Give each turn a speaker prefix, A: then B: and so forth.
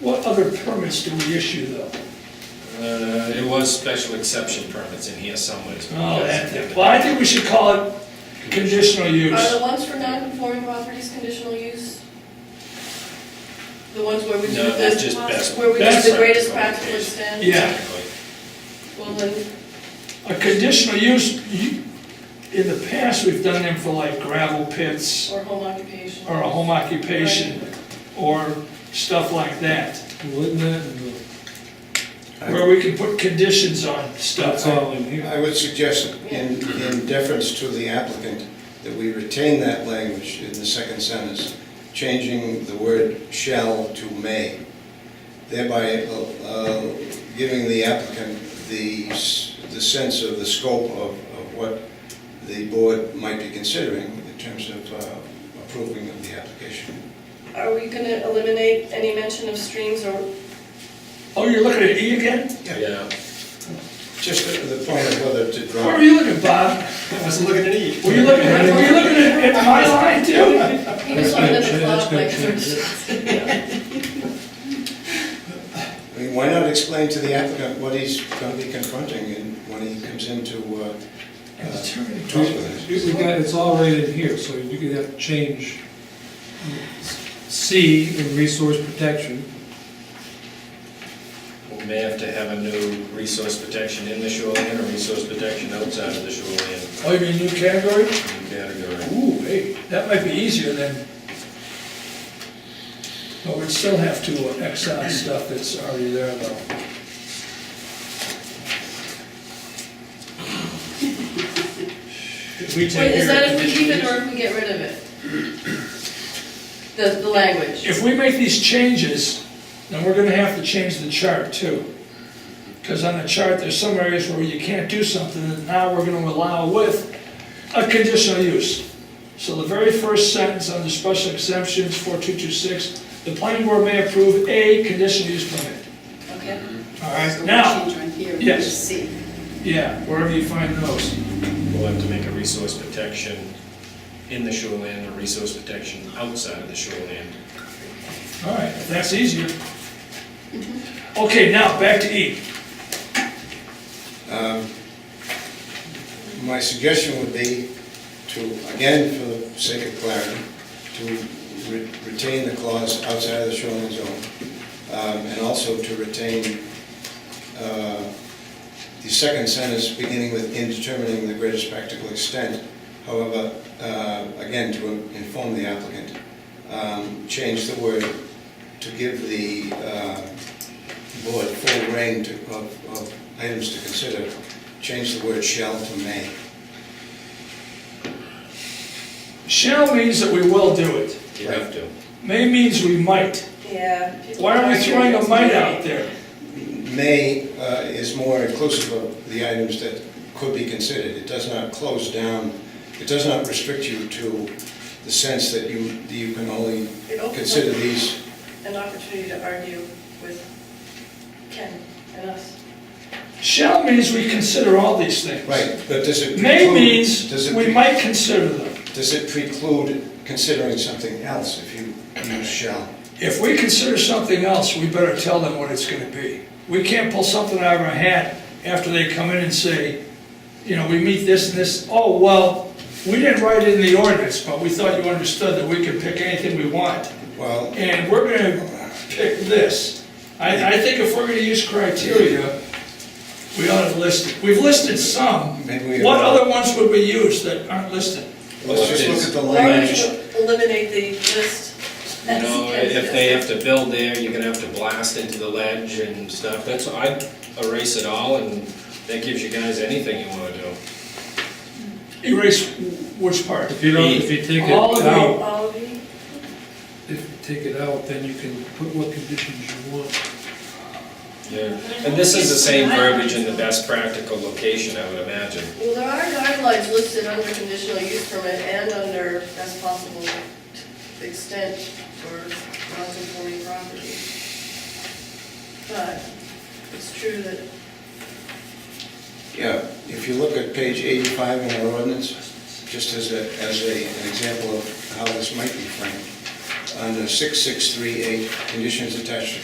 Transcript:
A: What other permits do we issue though?
B: Uh, It was special exception permits in here someplace. but
A: Oh,
B: that's-
A: that, well, I think we should call it conditional
C: Are the
A: use.
C: ones for non-conforming properties conditional use? The ones where we do
B: No, they're
C: the,
B: just best-
C: where we
A: best
C: do the greatest
B: practice
C: practical extent?
A: Yeah.
C: Well, then,
A: A conditional use, you- in the past, we've done them for like gravel pits
C: or home occupation.
A: or a home occupation or stuff like that,
D: Wouldn't that, and
A: where we can put conditions on stuff.
D: that's all in here.
E: I would suggest, in, in deference to the applicant, that we retain that language in the second sentence, changing the word "shall" to "may," thereby uh, giving the applicant the, s- the sense of the scope of, of what the board might be considering in terms of uh, approving of the application.
C: Are we gonna eliminate any mention of streams or,
A: Oh, you're looking at E again?
B: Yeah,
E: Just the the point of whether to
A: Where
E: drop,
A: were you looking, Bob?
F: I wasn't looking at E.
A: Were you looking, at- were you looking at at my line too?
C: he just wanted them to
D: That's gonna
C: flop like.
D: change- that's
E: I mean, why not explain to the applicant what he's going to be confronting and when he comes into uh, uh, talk with us?
D: We got, it's all right in here, so you could have to change C in resource protection.
B: we may have to have a new resource protection in the shoreline or resource protection outside of the shoreline
A: Oh, you mean new category?
B: category.
A: Ooh, hey, that might be easier than, but we'd still have to uh, X out stuff that's already there though. If we
C: Wait,
A: take
C: is that if we keep it
A: care
C: or
A: of
C: if we get rid of it? The, the language.
A: If we make these changes, then we're gonna have to change the chart too. Because on the chart, there's some areas where you can't do something that now we're gonna allow with a conditional use. So the very first sentence under special exemptions, 4226, the planning board may approve a conditional use permit.
C: Okay.
A: All right, now,
G: Change on here,
A: yes.
G: C.
A: yeah, wherever you find those.
B: We'll have to make a resource protection in the shoreline or resource protection outside of the shoreline.
A: All right, if that's easier. Okay, now, back to E.
E: My suggestion would be to, again, for the sake of clarity, to re- retain the clause outside of the shoreline zone, um, and also to retain uh, the second sentence beginning with "in determining the greatest practical extent." However, uh, again, to inform the applicant, um, change the word to give the uh, board full reign to- of of items to consider, change the word "shall" to "may."
A: Shall means that we will do it.
B: You have to.
A: May means we might.
C: Yeah. people
A: Why are we throwing a
C: arguing.
A: mite out there?
E: may uh, is more inclusive of the items that could be considered. It does not close down, it does not restrict you to the sense that you, that you can only
C: It opens up-
E: consider these.
C: An opportunity to argue with Ken and us.
A: Shall means we consider all these things.
E: Right, but does it preclude?
A: May means
E: does it
A: we
E: pre-
A: might consider them.
E: Does it preclude considering something else if you use shall?
A: If we consider something else, we better tell them what it's gonna be. We can't pull something out of our hat after they come in and say, you know, we meet this and this, oh, well, we didn't write it in the ordinance, but we thought you understood that we could pick anything we want.
E: Well,
A: and we're gonna pick this. I, I think if we're gonna use criteria, we ought to list it. We've listed some.
E: Maybe we-
A: What other ones would we use that aren't listed?
E: let's just look at the
C: Why don't
E: language.
C: you eliminate the list?
B: You know, if they have to build there, you're gonna have to blast into the ledge and stuff. That's, I'd erase it all and that gives you guys anything you wanna do.
A: Erase which part?
D: If you don't, if you take it
A: All of the-
D: out,
C: All of you?
D: if you take it out, then you can put what conditions you want.
B: Yeah, and this is the same verbiage in the best practical location, I would imagine.
C: Well, there are guidelines listed under conditional use permit and under best possible extent for non-conforming property. But it's true that
E: Yeah, if you look at page 85 in our ordinance, just as a, as a, an example of how this might be framed, under 6638, conditions attached to